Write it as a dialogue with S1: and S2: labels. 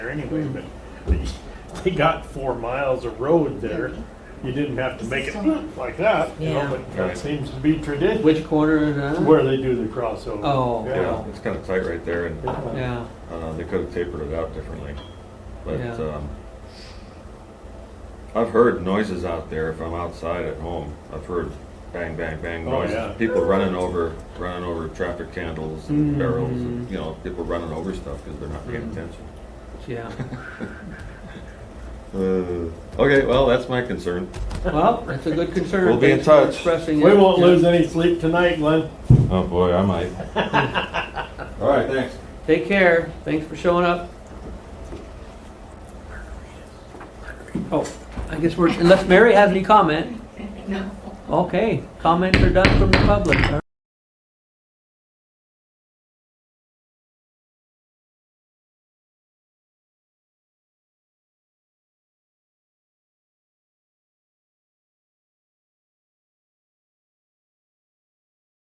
S1: there anyway, but they- they got four miles of road there. You didn't have to make it like that, you know,
S2: Yeah.
S1: but that seems to be tradition
S2: Which corner is that?
S1: where they do the crossover.
S2: Oh,
S1: Yeah.
S3: Yeah, it's kind of tight right there, and
S2: Yeah,
S3: uh, they could have tapered it out differently. But
S2: Yeah.
S3: um, I've heard noises out there if I'm outside at home. I've heard bang, bang, bang
S1: Oh,
S3: noises.
S1: yeah.
S3: People running over, running over traffic candles and
S2: Mm.
S3: barrels, and, you know, people running over stuff because they're not paying
S2: Mm.
S3: attention.
S2: yeah.
S3: Uh, okay, well, that's my concern.
S2: Well, that's a good concern.
S3: We'll be in
S2: Thanks for
S3: touch.
S2: Expressing it.
S1: We won't lose any sleep tonight, Glenn.
S3: Oh boy, I might. All right, thanks.
S2: Take care. Thanks for showing up. Oh, I guess we're, unless Mary has any comment?
S4: No.
S2: Okay, comments are done from the public, all